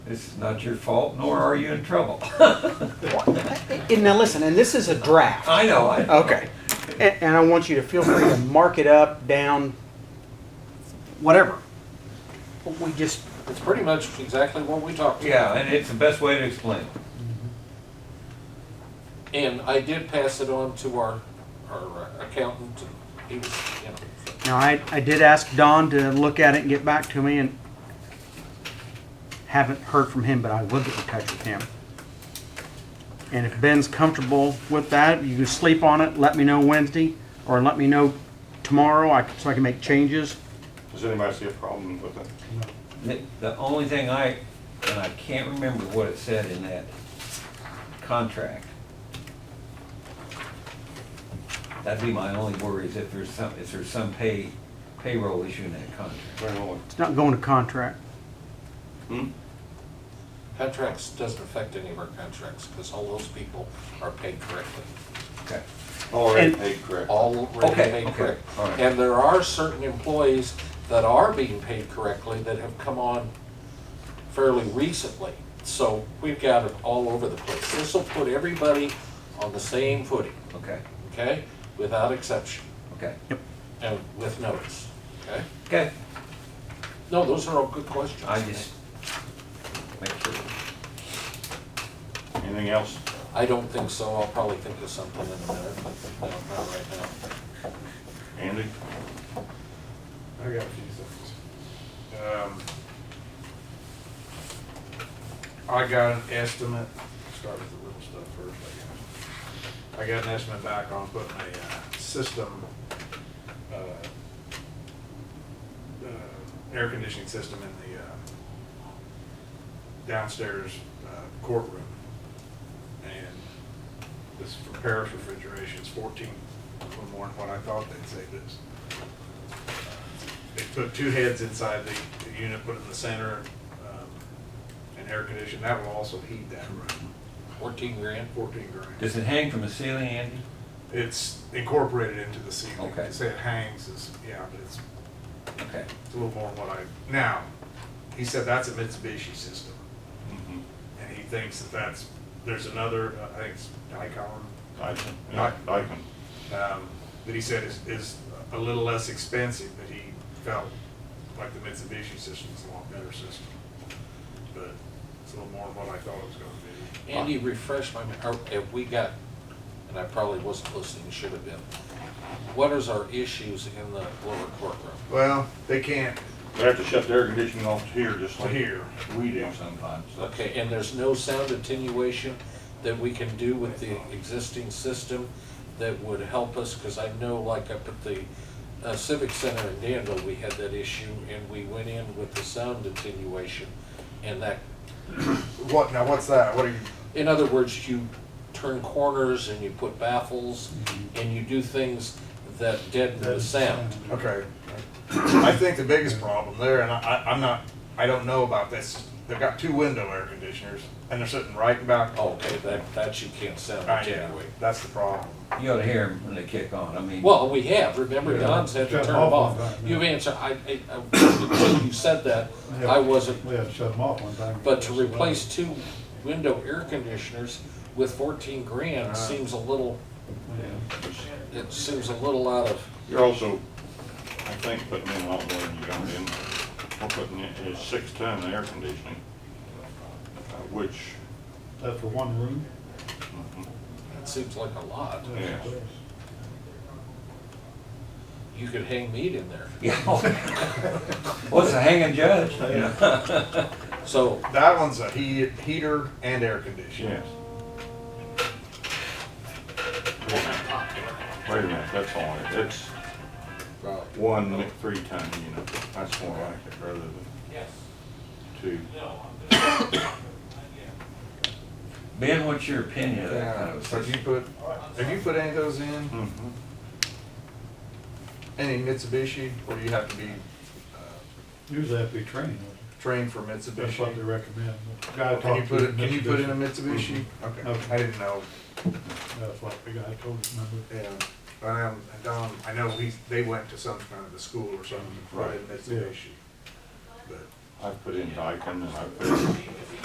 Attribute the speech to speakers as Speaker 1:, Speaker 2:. Speaker 1: It's not your fault, nor are you in trouble.
Speaker 2: And now listen, and this is a draft.
Speaker 1: I know, I know.
Speaker 2: Okay. And, and I want you to feel free to mark it up, down, whatever. But we just,
Speaker 3: It's pretty much exactly what we talked about.
Speaker 1: Yeah, and it's the best way to explain it.
Speaker 3: And I did pass it on to our, our uh, accountant. He was, you know,
Speaker 2: now I, I did ask Don to look at it and get back to me and haven't heard from him, but I will get in touch with him. And if Ben's comfortable with that, you can sleep on it, let me know Wednesday, or let me know tomorrow, I, so I can make changes.
Speaker 4: Does anybody see a problem with it?
Speaker 1: The, the only thing I, and I can't remember what it said in that contract. That'd be my only worry is if there's some, if there's some pay, payroll issue in that contract.
Speaker 4: Very well.
Speaker 2: It's not going to contract.
Speaker 4: Hmm?
Speaker 3: contracts doesn't affect any of our contracts because all those people are paid correctly.
Speaker 1: Okay.
Speaker 4: Already
Speaker 2: And-
Speaker 4: paid correct.
Speaker 3: All already
Speaker 1: Okay,
Speaker 3: paid
Speaker 1: okay,
Speaker 3: correct.
Speaker 1: all right.
Speaker 3: And there are certain employees that are being paid correctly that have come on fairly recently. So we've got it all over the place. This will put everybody on the same footing,
Speaker 1: Okay,
Speaker 3: okay? Without exception
Speaker 1: okay,
Speaker 3: and with notice, okay?
Speaker 1: okay.
Speaker 3: No, those are all good questions.
Speaker 1: I just, make sure.
Speaker 4: Anything else?
Speaker 3: I don't think so. I'll probably think of something in a minute, but no, not right now.
Speaker 4: Andy?
Speaker 5: I got a few things. Um, I got an estimate, start with the little stuff first, I guess. I got an estimate back on putting a uh, system, uh, uh, air conditioning system in the uh, downstairs uh, courtroom. And this for Paris refrigeration is fourteen, a little more than what I thought they'd say this. They put two heads inside the, the unit, put it in the center, um, and air condition, that will also heat that room,
Speaker 3: Fourteen grand?
Speaker 5: fourteen grand.
Speaker 1: Does it hang from the ceiling, Andy?
Speaker 5: It's incorporated into the ceiling,
Speaker 1: Okay.
Speaker 5: to say it hangs is, yeah, but it's,
Speaker 1: Okay,
Speaker 5: it's a little more than what I, now, he said that's a Mitsubishi system,
Speaker 4: Mhm.
Speaker 5: and he thinks that that's, there's another, uh, I think it's Dicom,
Speaker 4: Dyson? Yeah, Dyson.
Speaker 5: um, that he said is, is a little less expensive, but he felt like the Mitsubishi system is a lot better system. But it's a little more than what I thought it was gonna
Speaker 3: Andy, refresh my, mem- are- have we got, and I probably wasn't listening, should have been. What is our issues in the lower courtroom?
Speaker 5: be. Well, they can't
Speaker 4: They have to shut the air conditioning off here, just
Speaker 5: to
Speaker 4: like
Speaker 5: hear.
Speaker 4: we do sometimes. That's-
Speaker 3: Okay, and there's no sound attenuation that we can do with the existing system that would help us? Because I know like up at the uh, Civic Center in Danville, we had that issue and we went in with the sound attenuation. And that,
Speaker 5: What, now what's that? What are you,
Speaker 3: in other words, you turn corners and you put baffles and you do things that deaden the sound.
Speaker 5: okay. I think the biggest problem there, and I, I- I'm not, I don't know about this, they've got two window air conditioners, and they're sitting right back.
Speaker 3: Okay, that, that you can't sound
Speaker 5: I know,
Speaker 3: attenuate.
Speaker 5: that's the problem.
Speaker 1: you ought to hear them when they kick on, I mean.
Speaker 3: Well, we have, remember Don's had to
Speaker 6: Shut
Speaker 3: turn them
Speaker 6: off
Speaker 3: off.
Speaker 6: on that,
Speaker 3: You've
Speaker 6: yeah.
Speaker 3: answered, I, I, I- until you said that, I wasn't,
Speaker 6: We had to shut them off one time.
Speaker 3: but to replace two window air conditioners with fourteen
Speaker 6: Uh-huh.
Speaker 3: grand seems a little, it seems a little out of,
Speaker 4: You're also, I think, putting in a lot more than you got in. We're putting in is six ton air conditioning, uh, which,
Speaker 6: That for one room?
Speaker 4: mhm,
Speaker 3: it seems like a lot.
Speaker 4: yeah.
Speaker 3: You could hang meat in there.
Speaker 1: Yeah. What's a hanging judge? you know?
Speaker 3: So,
Speaker 5: That one's a heat, heater and air conditioner.
Speaker 4: Yes. Wait a minute, that's all, it- it's
Speaker 3: uh,
Speaker 4: one three-ton unit, that's more like it rather than two.
Speaker 1: Ben, what's your opinion of that kind
Speaker 5: Yeah,
Speaker 1: of
Speaker 5: so if
Speaker 1: thing?
Speaker 5: you put, if you put any of those in,
Speaker 4: Mhm.
Speaker 5: any Mitsubishi, or you have to be uh,
Speaker 6: Usually have to be trained.
Speaker 5: trained for
Speaker 6: That's what they
Speaker 5: Mitsubishi?
Speaker 6: recommend. The
Speaker 5: Can
Speaker 6: Guy
Speaker 5: you
Speaker 6: talked to.
Speaker 5: put, it- can you put in a
Speaker 6: Mitsubishi. Mm-hmm.
Speaker 5: Mitsubishi? Okay,
Speaker 6: Okay.
Speaker 5: I didn't know,
Speaker 6: That's what the guy told us, remember?
Speaker 5: yeah, but, um, and Don, I know he's, they went to some kind of the school or something, brought in
Speaker 6: Right, yeah.
Speaker 5: Mitsubishi. But
Speaker 4: I've put in Daikin and I've put in